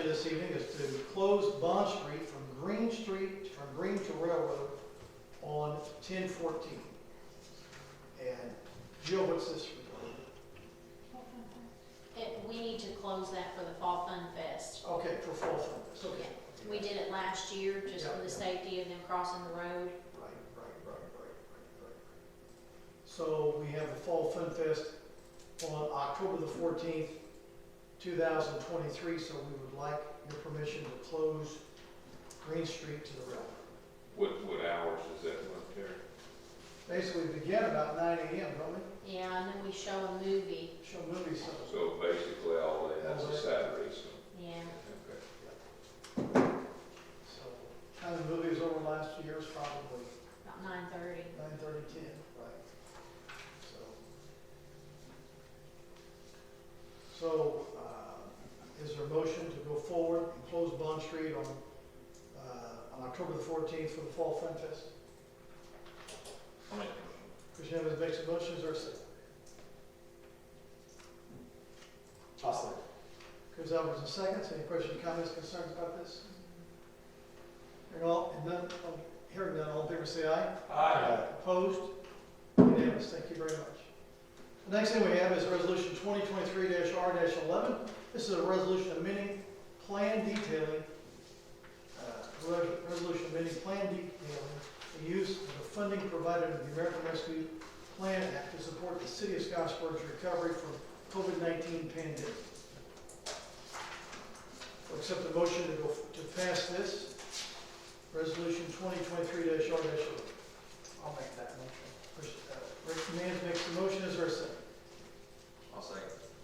this evening is to close Bond Street from Green Street, from Green to Railroad on ten fourteen. And Jill, what's this regarding? It, we need to close that for the Fall Fun Fest. Okay, for Fall Fest, okay. We did it last year just for the safety of them crossing the road. Right, right, right, right, right, right. So we have the Fall Fun Fest on October the fourteenth, two thousand twenty-three, so we would like your permission to close Green Street to the railroad. What, what hours is that one, Terry? Basically, we begin about nine AM, don't we? Yeah, and then we show a movie. Show movie stuff. So basically all day, that's a Saturday, so, Yeah, okay. So, kind of movies over the last few years, probably about nine thirty. nine thirty, ten, right? So. So, uh, is there a motion to go forward and close Bond Street on, uh, on October the fourteenth for the Fall Fun Fest? I'll make Christian Evans makes a motion, is there a second? Awesome. Chris Albertson seconds, any questions, comments, concerns about this? Hearing all, and none, oh, hearing none, all in favor say aye. Aye. Opposed? Unanimous, thank you very much. The next thing we have is Resolution 2023-R-11. This is a resolution amending plan detailing, uh, re- resolution amending plan detailing the use of the funding provided in the American Rescue Plan Act to support the city of Scottsburg's recovery from COVID-19 pandemic. We'll Accept the motion to go, to pass this, Resolution 2023-R-11. I'll make that motion. Christian, uh, Rick Mann makes the motion, is there a second? I'll say.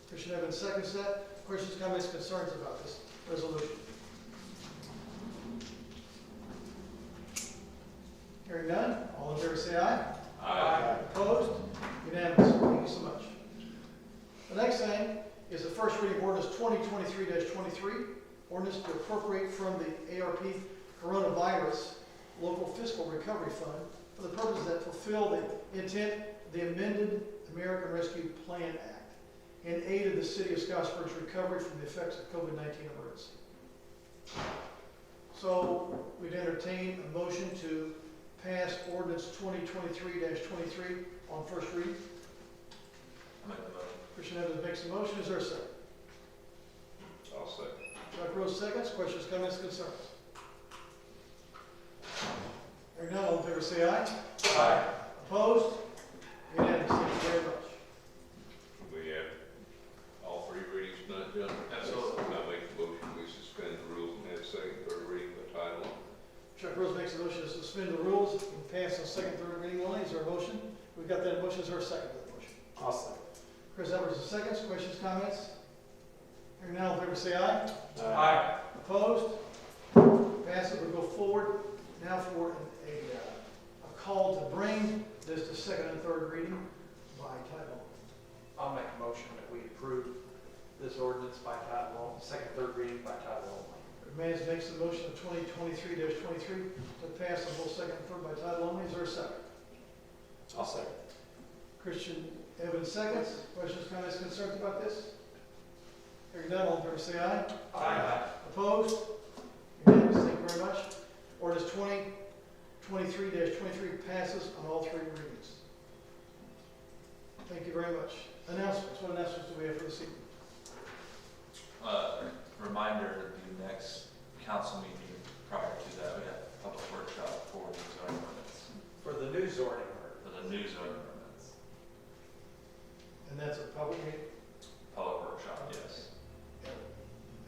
Christian Evans seconds that. Questions, comments, concerns about this resolution? Hearing none, all in favor say aye. Aye. Opposed? Unanimous. Thank you so much. The next thing is the first reading of ordinance twenty twenty-three twenty-three, ordinance to appropriate from the ARP Coronavirus Local Fiscal Recovery Fund for the purposes that fulfill the intent of the amended American Rescue Plan Act in aid of the city of Scottsburg's recovery from the effects of COVID-19 emergency. So we'd entertain a motion to pass ordinance twenty twenty-three twenty-three on first read. I'll make the motion. Christian Evans makes the motion, is there a second? I'll say. Chuck Rose seconds, questions, comments, concerns? Hearing none, all in favor say aye. Aye. Opposed? Unanimous, thank you very much. We have all three readings not done. Absolutely. I make the motion, we suspend the rules and have second, third reading by title only. Chuck Rose makes a motion to suspend the rules and pass on second, third reading only, is there a motion? We've got that motion, is there a second to that motion? Awesome. Chris Evans seconds, questions, comments? Hearing none, all in favor say aye. Aye. Opposed? Pass it, we go forward. Now for a, uh, a call to bring this to second and third reading by title. I'll make a motion that we approve this ordinance by title only, second, third reading by title only. Mans makes the motion of twenty twenty-three twenty-three to pass the whole second and third by title only. Is there a second? I'll second. Christian Evans seconds. Questions, comments, concerns about this? Hearing none, all in favor say aye. Aye. Opposed? Unanimous, thank you very much. Ordinance twenty twenty-three twenty-three passes on all three readings. Thank you very much. Announcements, what announcements do we have for this evening? Uh, reminder, the next council meeting prior to that, we have a public workshop for the zoning ordinance, For the new zoning ordinance. for the new zoning ordinance. And that's a public meeting, Public workshop, yes. and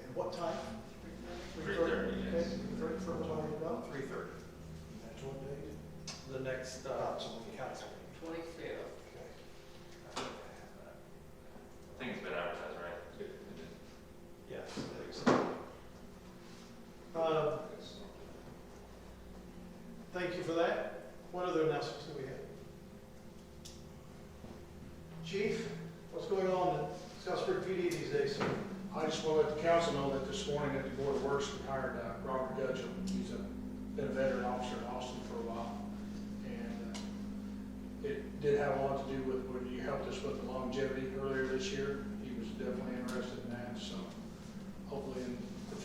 and what time? Three thirty, yes. Okay, three thirty for everybody to know. Three thirty. That's one day. The next, uh, council meeting. Twenty-fifth, I think it's been advertised, right? Yes. Uh, That's not- thank you for that. What other announcements do we have? Chief, what's going on in Scottsburg PD these days, sir? I just want to let the council know that this morning at the Board of Works, we hired uh, Robert Gudgeon. He's a, been a veteran officer in Austin for a while. And uh, it did have a lot to do with when you helped us with the longevity earlier this year. He was definitely interested in that, so hopefully in